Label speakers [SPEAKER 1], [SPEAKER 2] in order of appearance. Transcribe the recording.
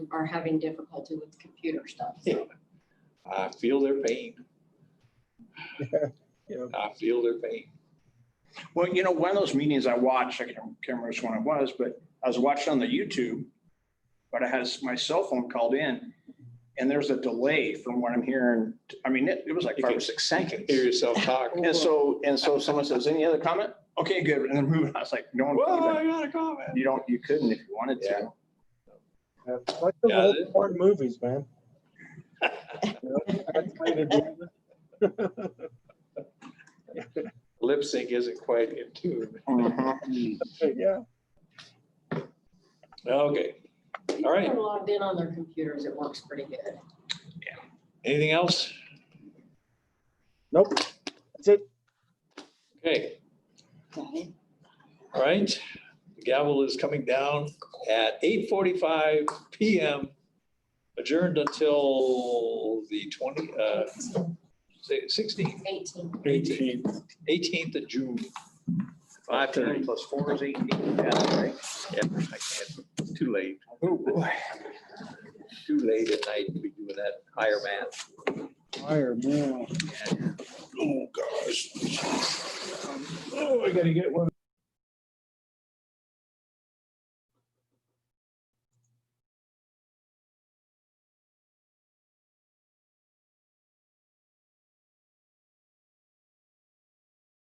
[SPEAKER 1] are having difficulty with computer stuff. so.
[SPEAKER 2] I feel their pain.
[SPEAKER 3] Yeah.
[SPEAKER 2] I feel their pain.
[SPEAKER 3] Well, you know, one of those meetings I watched, I can't can't remember which one it was, but I was watching on the YouTube, but I had my cell phone called in and there's a delay from what I'm hearing. I mean, it, it was like
[SPEAKER 2] You
[SPEAKER 3] five
[SPEAKER 2] can-
[SPEAKER 3] or six
[SPEAKER 2] You can
[SPEAKER 3] seconds.
[SPEAKER 2] hear yourself talk.
[SPEAKER 3] And so, and so someone says, any other comment? Okay, good. And then move. on. I was like, no one.
[SPEAKER 2] Whoa, I got a comment.
[SPEAKER 3] You don't, you couldn't if you wanted
[SPEAKER 2] Yeah.
[SPEAKER 3] to.
[SPEAKER 4] Yeah, it's Like those
[SPEAKER 2] Yeah,
[SPEAKER 4] old
[SPEAKER 2] it-
[SPEAKER 4] porn movies, man. You know, that's the way to do it.
[SPEAKER 2] Lip sync isn't quite in tune.
[SPEAKER 3] Mhm.
[SPEAKER 4] Yeah,
[SPEAKER 2] Okay. All
[SPEAKER 1] People
[SPEAKER 2] right.
[SPEAKER 1] are logged in on their computers, it works pretty good.
[SPEAKER 2] Anything else?
[SPEAKER 4] nope, that's it.
[SPEAKER 2] Okay. All right. The Gavel is coming down at eight forty-five PM. Adjourned until the twenty, uh, sixteenth,
[SPEAKER 1] Eighteen.
[SPEAKER 2] eighteenth, eighteenth of June. Five
[SPEAKER 3] Thirty
[SPEAKER 2] thirty.
[SPEAKER 3] plus four is eighteen. Yeah, right.
[SPEAKER 2] Yeah, I can't. Too late.
[SPEAKER 3] Oh, boy.
[SPEAKER 2] Too late at night to be doing that higher math.
[SPEAKER 4] Fire, man.
[SPEAKER 2] Oh, gosh. Oh, I gotta get one.